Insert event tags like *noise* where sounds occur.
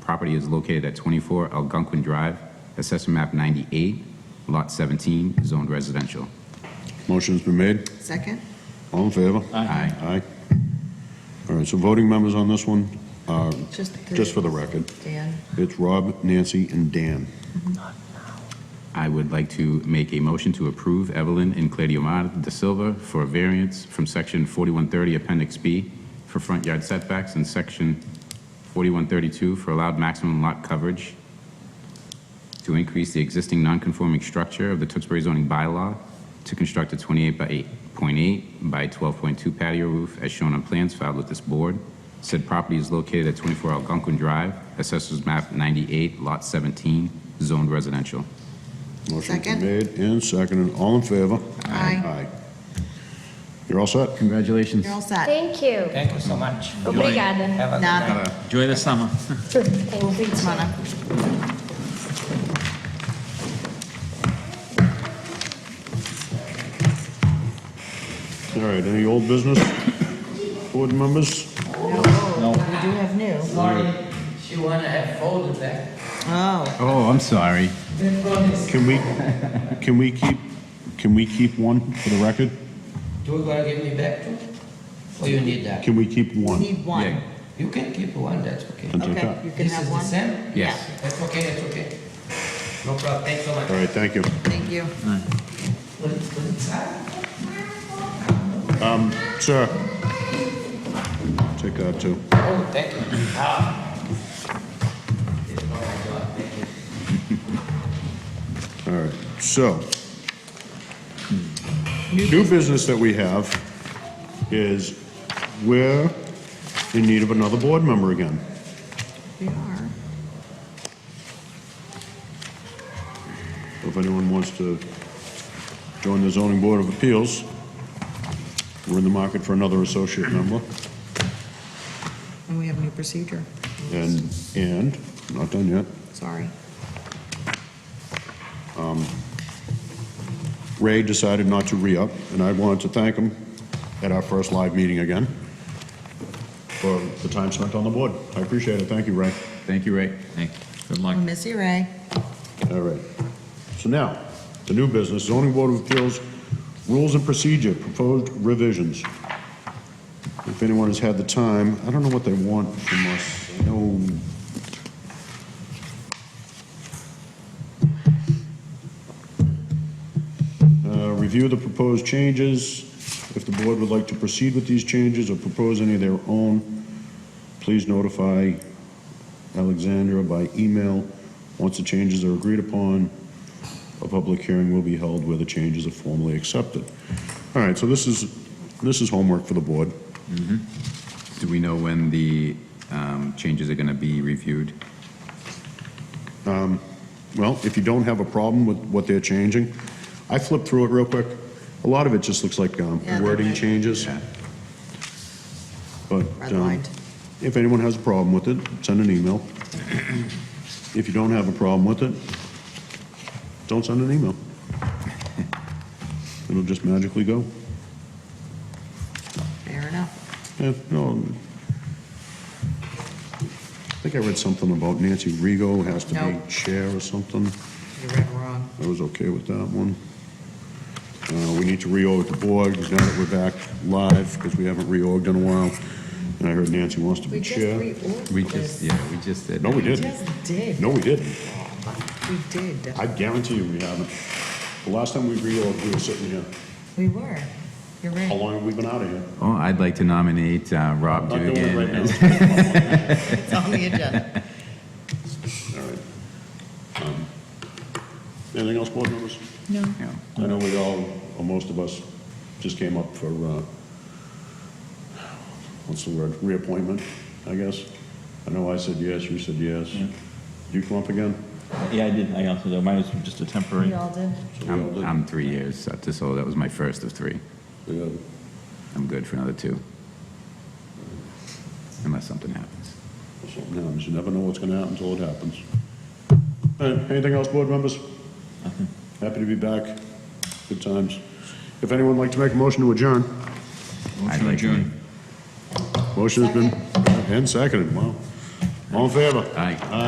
Property is located at 24 Algonquin Drive, Assessor Map 98, Lot 17, Zoned Residential. Motion's been made. Second? All in favor? Aye. Aye. All right, so voting members on this one, uh, Just the three. just for the record, Dan? it's Rob, Nancy, and Dan. I would like to make a motion to approve Evelyn and Claudiomar da Silva for a variance from Section 4130 Appendix B for front yard setbacks and Section 4132 for allowed maximum lot coverage to increase the existing nonconforming structure of the Tewksbury zoning bylaw to construct a 28 by 8.8 by 12.2 patio roof as shown on plans filed with this board. Said property is located at 24 Algonquin Drive, Assessors Map 98, Lot 17, Zoned Residential. Motion's been Second. made and seconded. All in favor? Aye. Aye. You're all set? Congratulations. You're all set. Thank you. Thank you so much. Obrigada. um Have a good Nada. night. Enjoy the summer. Thank you. Come on up. All right, any old business? Board members? No, we do have new. Sorry, she wanna have folded that. Oh, Oh, I'm sorry. Can we, can we keep, can we keep one for the record? Do you gonna give me back two? Or you need that? Can we keep we one? need one. Yeah. You can keep one, that's okay. That's Okay, you can This have is the one. same? Yes. That's okay, that's okay. No problem, thanks so much. All right, thank you. Thank you. Put it- put it aside. Sir? Take that, too. Oh, thank you. Ah. oh All right, so, new business that we have is we're in need of another board member again. We are. If anyone wants to join the zoning board of appeals, we're in the market for another associate member. And we have a new procedure. And, and, not done yet, Sorry. Ray decided not to re-up, and I wanted to thank him at our first live meeting again for the time spent on the board. I appreciate it. Thank you, Ray. Thank you, Ray. Thank you. Good luck. We miss you, Ray. All right. So now, the new business, zoning board of appeals, rules and procedure, proposed revisions. If anyone has had the time, I don't know what they want from us. I know Uh, Review the proposed changes. If the board would like to proceed with these changes or propose any of their own, please notify Alexandra by email. Once the changes are agreed upon, a public hearing will be held where the changes are formally accepted. All right, so this is, this is homework for the board. Do we know when the um, changes are going to be reviewed? Well, if you don't have a problem with what they're changing, I flipped through it real quick. A lot of it just looks like um, Yeah, they're wording like- changes. But Red um, lined. if anyone has a problem with it, send an *clears throat* email. If you don't have a problem with it, don't send an *laughs* email. It'll just magically go. Fair enough. Yeah, no. um, I think I read something about Nancy Rigo has to No. be chair or something. You read wrong. I was okay with that one. Uh, We need to reorg the board, because now that we're back live, because we haven't reorged in a while, and I heard Nancy wants to be We just chair. reordered We just, this. yeah, we just did. No, we We didn't. just did. No, we didn't. We did. I guarantee you we haven't. The last time we reorged, we were sitting here. We were. You're How right. long have we been out of here? Oh, I'd like to nominate uh, Rob Not doing it right Dugan. now. It's on the agenda. *laughs* All right. Um, Anything else, board members? Yeah. I know we all, or most of us, just came up for, uh, what's the word, reappointment, I guess. I know I said yes, you said yes. You come up again? Yeah, I did, I also, mine was just a temporary. all did. So we all I'm, did. I'm three years up to, so that was my first of three. Yeah. I'm good for another two. Unless something happens. Something happens, you never know what's gonna happen until it happens. All right, anything else, board members? Happy to be back, good times. If anyone would like to make a motion to adjourn, I'd like to- motion has been, and seconded, wow. All in favor? Aye.